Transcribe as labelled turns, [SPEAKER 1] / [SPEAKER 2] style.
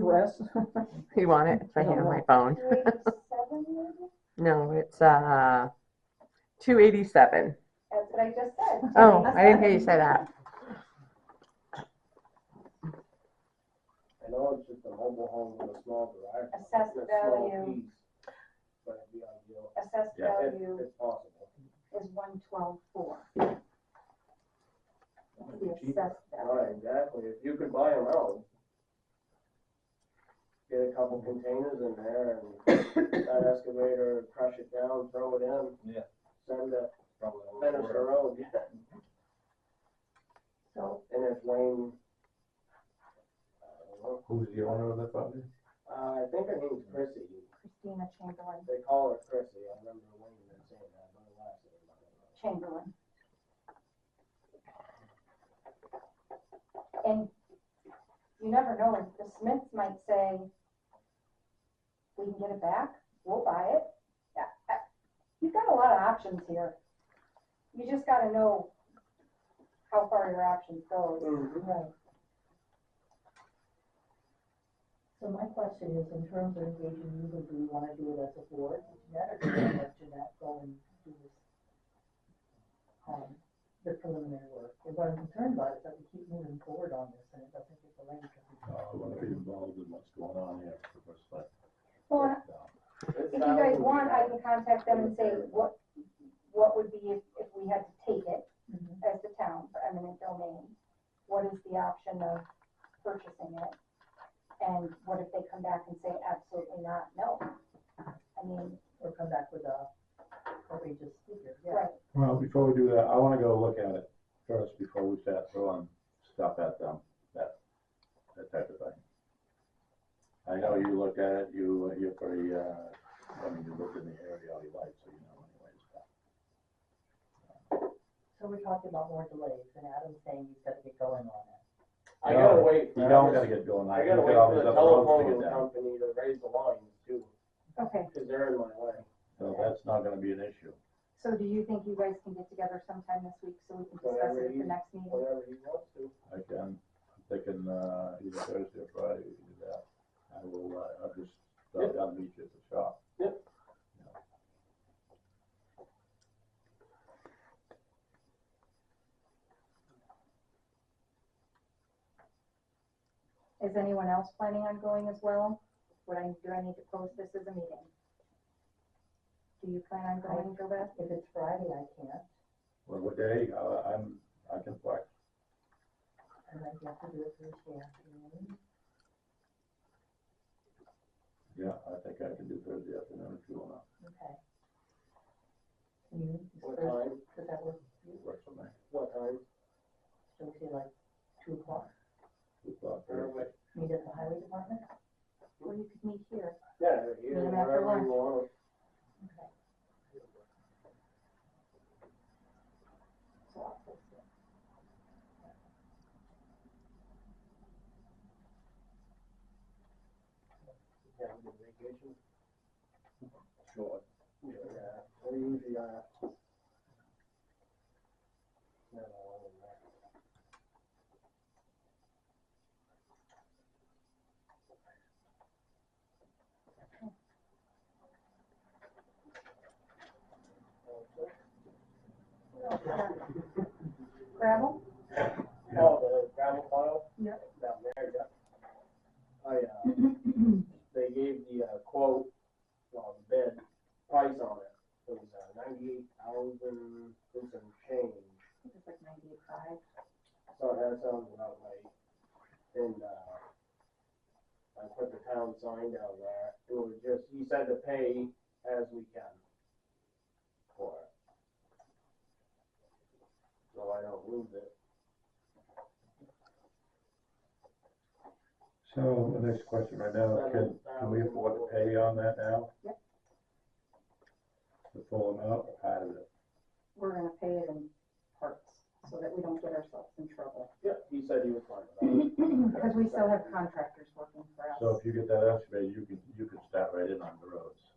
[SPEAKER 1] rest.
[SPEAKER 2] You want it? It's right here on my phone.
[SPEAKER 3] Thirty-seven, maybe?
[SPEAKER 2] No, it's uh, 287.
[SPEAKER 3] That's what I just said.
[SPEAKER 2] Oh, I didn't hear you say that.
[SPEAKER 4] I know it's just a mobile home with a small garage. but
[SPEAKER 3] Assessed
[SPEAKER 4] it's a small
[SPEAKER 3] value.
[SPEAKER 4] piece, But it'd be ideal
[SPEAKER 3] Assessed
[SPEAKER 5] Yeah.
[SPEAKER 4] if
[SPEAKER 3] value
[SPEAKER 4] it's possible.
[SPEAKER 3] is one twelve four.
[SPEAKER 4] It'd
[SPEAKER 3] The
[SPEAKER 4] be cheaper.
[SPEAKER 3] assessed value.
[SPEAKER 4] Right, exactly. If you could buy them out. Get a couple containers in there and that excavator, crush it down, throw it in.
[SPEAKER 5] Yeah.
[SPEAKER 4] Send it,
[SPEAKER 5] Probably won't
[SPEAKER 4] finish the
[SPEAKER 5] work.
[SPEAKER 4] road, yeah.
[SPEAKER 3] So
[SPEAKER 4] And if Wayne. I don't know.
[SPEAKER 6] Who's the owner of that property?
[SPEAKER 4] Uh, I think her name's Chrissy.
[SPEAKER 3] Christina Chamberlain,
[SPEAKER 4] They call her Chrissy. I remember Wayne had saying that, but her last name. I
[SPEAKER 3] Chamberlain. And
[SPEAKER 4] don't know.
[SPEAKER 3] you never know, if the Smiths might say, we can get it back, we'll buy it. Yeah, I- You've got a lot of options here. You just gotta know how far your options go.
[SPEAKER 7] Right. So my question is, in terms of engaging you, do we wanna do it as a board, with Jeanette, or do we let Jeanette go and do this? Um, the preliminary work, and what I'm concerned about is that we keep moving forward on this, and it doesn't get the length of
[SPEAKER 6] Uh, I want to be involved in what's going on here for the first time.
[SPEAKER 3] Well, and
[SPEAKER 6] Uh,
[SPEAKER 3] if
[SPEAKER 4] It's
[SPEAKER 3] you
[SPEAKER 4] not
[SPEAKER 3] guys
[SPEAKER 4] easy.
[SPEAKER 3] want, I can contact them and say, what, what would be if, if we had to take it
[SPEAKER 8] Mm-hmm.
[SPEAKER 7] it.
[SPEAKER 3] as the town for eminent domain? What is the option of purchasing it? And what if they come back and say absolutely not, no? I mean,
[SPEAKER 7] Or come back with a outrageous figure, yeah.
[SPEAKER 3] right,
[SPEAKER 6] Well, before we do that, I want to go look at it first before we start throwing stuff at them, that, that type of thing. I know you looked at it, you, you're pretty, uh, I mean, you looked in the area all you like, so you know anyways.
[SPEAKER 7] So we're talking about more delays, and Adam's saying he's gotta get going on it.
[SPEAKER 4] I gotta wait. for
[SPEAKER 6] You don't
[SPEAKER 4] others.
[SPEAKER 6] gotta get going.
[SPEAKER 4] I gotta
[SPEAKER 6] Look
[SPEAKER 4] wait
[SPEAKER 6] at all
[SPEAKER 4] for
[SPEAKER 6] these
[SPEAKER 4] the
[SPEAKER 6] other roads to
[SPEAKER 4] telephone
[SPEAKER 6] get down.
[SPEAKER 4] company to raise the lines too,
[SPEAKER 8] Okay,
[SPEAKER 4] cause they're in my way.
[SPEAKER 6] So that's not gonna be an issue.
[SPEAKER 8] so do you think you guys can get together sometime this week so we can discuss it at the next meeting?
[SPEAKER 4] whenever he wants to.
[SPEAKER 6] I can, I'm thinking, uh, either Thursday or Friday, we can do that. I will, uh, I'll just,
[SPEAKER 4] Yep.
[SPEAKER 6] I'll meet you at the shop.
[SPEAKER 4] Yep.
[SPEAKER 8] Is anyone else planning on going as well? Would I, do I need to post this as a meeting? Do you plan on going, Joe
[SPEAKER 7] If it's Friday, I can't,
[SPEAKER 6] Well, what day, uh, I'm, I can flex.
[SPEAKER 7] I might have to do it Thursday afternoon.
[SPEAKER 6] Yeah, I think I can do Thursday afternoon if you wanna
[SPEAKER 7] Okay. You,
[SPEAKER 4] What
[SPEAKER 7] first,
[SPEAKER 4] time,
[SPEAKER 7] does that work, for you?
[SPEAKER 6] work for me.
[SPEAKER 4] what time?
[SPEAKER 7] don't you like two o'clock,
[SPEAKER 6] Two o'clock Thursday.
[SPEAKER 4] Perfect.
[SPEAKER 7] meet at the highway department?
[SPEAKER 8] Or you could meet here?
[SPEAKER 4] Yeah, you,
[SPEAKER 8] Meet 'em after
[SPEAKER 4] wherever
[SPEAKER 8] lunch.
[SPEAKER 4] you want.
[SPEAKER 7] Okay. So I'll fix it.
[SPEAKER 4] Yeah, I'm on vacation.
[SPEAKER 5] Sure.
[SPEAKER 4] Yeah, we usually, uh. no, no, I'm in there.
[SPEAKER 8] Gravel?
[SPEAKER 4] Oh, the gravel pile?
[SPEAKER 8] Yeah.
[SPEAKER 4] Down there, yeah. I, uh, they gave the uh, quote, well, the bid, price on it, it was uh, ninety-eight thousand, and some change.
[SPEAKER 8] It's like ninety-five.
[SPEAKER 4] So that sounds about right. And, uh, I put the town sign down there, it was just, he said to pay as we can for it. So I don't lose it.
[SPEAKER 6] So, the next question right now, can, can we afford to pay on that now?
[SPEAKER 8] Yep.
[SPEAKER 6] The full amount or part of it?
[SPEAKER 8] We're gonna pay it in parts so that we don't get ourselves in trouble.
[SPEAKER 4] Yeah, he said he was fine with that.
[SPEAKER 8] Because we still have contractors working for us.
[SPEAKER 6] So if you get that excavated, you can, you can start right in on the roads.
[SPEAKER 4] Oh,